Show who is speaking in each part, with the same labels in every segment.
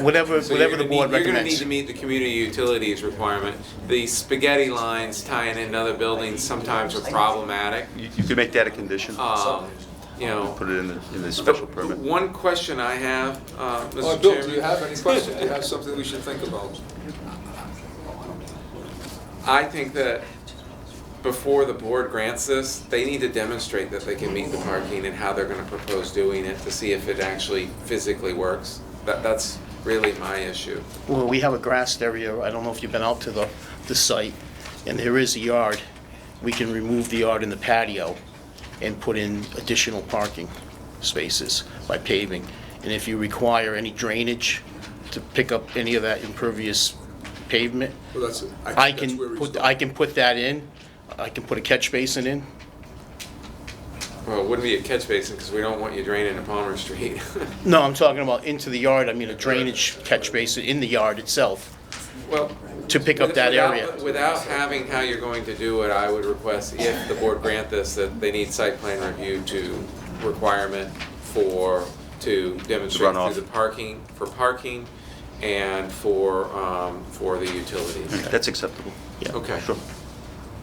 Speaker 1: whatever,
Speaker 2: So
Speaker 1: whatever
Speaker 2: you're
Speaker 1: the
Speaker 2: gonna
Speaker 1: board
Speaker 2: need- You're gonna need
Speaker 1: recommends.
Speaker 2: to meet the community utilities requirement. The spaghetti lines tying into other buildings sometimes are problematic.
Speaker 3: You you could make that a condition,
Speaker 2: Um, You know.
Speaker 3: put it in the, in the special
Speaker 2: The-
Speaker 3: permit.
Speaker 2: One question I have, uh, Mr.
Speaker 4: Uh,
Speaker 2: Chairman.
Speaker 4: Bill, do you have any questions? Do you have something we should think about?
Speaker 2: I think that before the board grants this, they need to demonstrate that they can meet the parking and how they're gonna propose doing it to see if it actually physically works. That, that's really my issue.
Speaker 1: Well, we have a grassed area, I don't know if you've been out to the, the site, and there is a yard. We can remove the yard in the patio and put in additional parking spaces by paving. And if you require any drainage to pick up any of that impervious pavement,
Speaker 4: Well, that's, it.
Speaker 1: I
Speaker 4: I think that's
Speaker 1: can
Speaker 4: where we
Speaker 1: put,
Speaker 4: start.
Speaker 1: I can put that in. I can put a catch basin in.
Speaker 2: Well, it wouldn't be a catch basin, because we don't want you draining to Palmer Street.
Speaker 1: No, I'm talking about into the yard, I mean a drainage catch basin in the yard itself
Speaker 2: Well.
Speaker 1: to pick up that
Speaker 2: without-
Speaker 1: area.
Speaker 2: Without having how you're going to do it, I would request, if the board grant this, that they need site plan review to requirement for, to demonstrate
Speaker 3: Runoff.
Speaker 2: through the parking, for parking and for, um, for the utilities.
Speaker 3: That's acceptable.
Speaker 1: Yeah.
Speaker 2: Okay.
Speaker 3: Sure.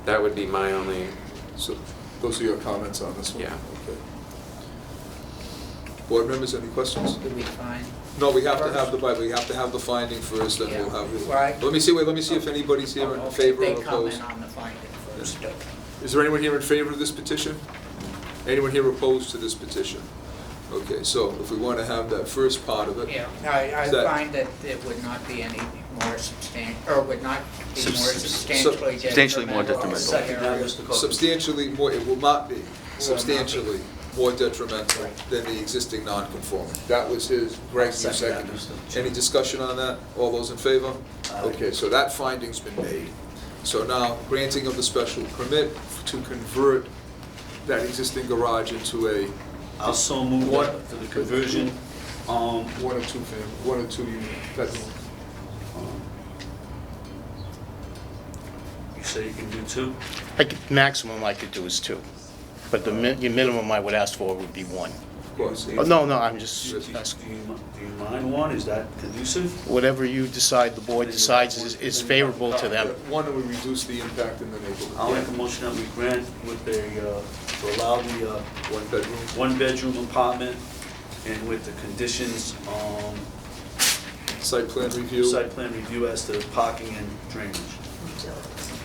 Speaker 2: That would be my only,
Speaker 4: So, those are your comments on this one?
Speaker 2: Yeah.
Speaker 4: Okay. Board members, any questions?
Speaker 5: Did we find?
Speaker 4: No, we have to have the, but we have to have the finding first, then we'll have.
Speaker 5: Yeah, right.
Speaker 4: Let me see, wait, let me see if anybody's here in favor or
Speaker 5: Oh, They
Speaker 4: opposed.
Speaker 5: comment on the finding first.
Speaker 4: Is there anyone here in favor of this petition? Anyone here opposed to this petition? Okay, so if we want to have that first part of it.
Speaker 5: Yeah, I, I
Speaker 4: Is that-
Speaker 5: find that it would not be any more substan, or would not be
Speaker 3: Sub-
Speaker 5: more
Speaker 3: sub-
Speaker 5: substantially detrimental.
Speaker 3: substantially more detrimental.
Speaker 5: to the area.
Speaker 4: Substantially more, it will not be substantially more detrimental than the existing non-conforming. That was his, Greg, you seconded. Any discussion on that? All those in favor?
Speaker 6: Uh,
Speaker 4: Okay, so that finding's been made. So now, granting of the special permit to convert that existing garage into a
Speaker 6: Also move
Speaker 4: What-
Speaker 6: to the conversion, um,
Speaker 4: one or two fam, one or two unit, that's,
Speaker 6: you say you can do two?
Speaker 1: I could, maximum I could do is two, but the min, your minimum I would ask for would be one.
Speaker 4: of course.
Speaker 1: Oh, No, no, I'm
Speaker 6: Do
Speaker 1: just
Speaker 6: you, do
Speaker 1: asking,
Speaker 6: you mi- do you mind one, is that conducive?
Speaker 1: whatever you decide, the board decides is, is favorable to them.
Speaker 4: One, it would reduce the impact in the neighborhood.
Speaker 6: I'll make a motion that we grant with a, uh, to allow the, uh,
Speaker 4: One bedroom.
Speaker 6: one-bedroom apartment and with the conditions, um,
Speaker 4: Site plan review.
Speaker 6: site plan review as to parking and drainage.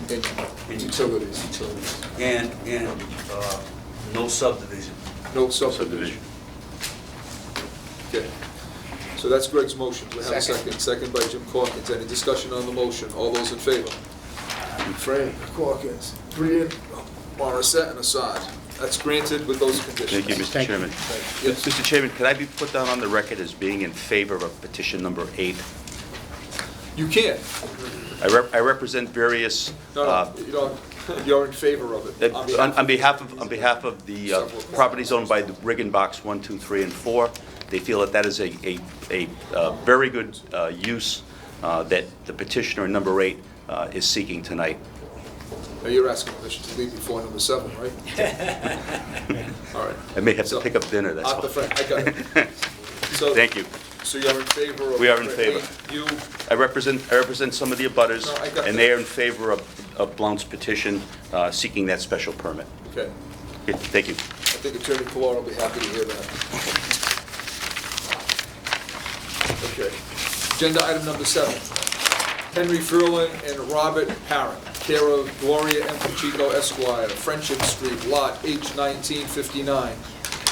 Speaker 6: And
Speaker 4: Utilities.
Speaker 6: Utilities. And, and, uh, no subdivision.
Speaker 4: No
Speaker 3: Subdivision.
Speaker 4: subdivision. Okay. So that's Greg's motion. We have a
Speaker 5: Second.
Speaker 4: second. Second by Jim Corkins. Any discussion on the motion? All those in favor? Frank Corkins, Brian Morissette, and Assad. That's granted with those conditions.
Speaker 3: Thank you, Mr.
Speaker 1: Thank you.
Speaker 3: Chairman.
Speaker 4: you. Yes.
Speaker 3: Mr. Chairman, could I be put down on the record as being in favor of petition number eight?
Speaker 4: You can.
Speaker 3: I rep- I represent various,
Speaker 4: No,
Speaker 3: uh,
Speaker 4: no, you don't, you're in favor of it.
Speaker 3: that- on on behalf of, um, on behalf of the uh, properties owned by the Rig and Box 1, 2, 3, and 4, they feel that that is a, a, a uh, very good uh, use uh, that the petitioner number eight uh, is seeking tonight.
Speaker 4: Now, You're asking permission to leave before number seven, right? All right.
Speaker 3: I may have to
Speaker 4: So,
Speaker 3: pick up dinner, that's
Speaker 4: After
Speaker 3: all.
Speaker 4: Frank, I got it. So-
Speaker 3: Thank you.
Speaker 4: So you're in favor of...
Speaker 3: We are in favor.
Speaker 4: You,
Speaker 3: I represent, I represent some of the abutters,
Speaker 4: No, I got
Speaker 3: and
Speaker 4: that.
Speaker 3: they are in favor of, of Blount's petition uh, seeking that special permit.
Speaker 4: okay.
Speaker 3: Okay, Thank you.
Speaker 4: I think Attorney Pilar will be happy to hear that. Okay. Agenda item number seven. Henry Furlan and Robert Parent, care of Gloria M. Pacheco Esquire, Friendship Street, Lot H nineteen fifty-nine.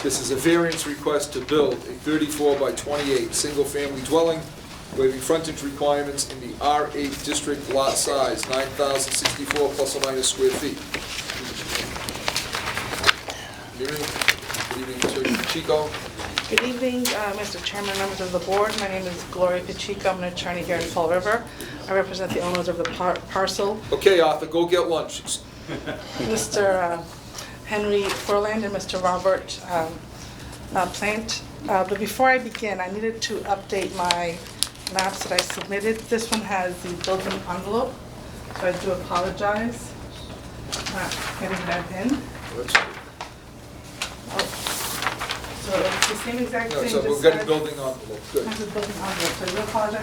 Speaker 4: This is a variance request to build a thirty-four by twenty-eight, single-family dwelling, waiving frontage requirements in the R eight district lot size, nine thousand sixty-four plus or minus square feet. Good evening, good evening, Attorney Pacheco.
Speaker 7: Good evening, uh, Mr. Chairman, members of the board. My name is Gloria Pacheco. I'm an attorney here in Fall River. I represent the owners of the par- parcel.
Speaker 4: Okay, Arthur, go get lunch.
Speaker 7: Mr. uh, Henry Furland and Mr. Robert um, uh, Plant. Uh, But before I begin, I needed to update my maps that I submitted. This one has the building envelope, so I do apologize. Not getting that in.
Speaker 4: Let's-
Speaker 7: Oh, So if the same exact
Speaker 4: No,
Speaker 7: thing.
Speaker 4: so
Speaker 7: just
Speaker 4: we've got a
Speaker 7: said-
Speaker 4: building envelope, good.
Speaker 7: I have a building envelope, so I do apologize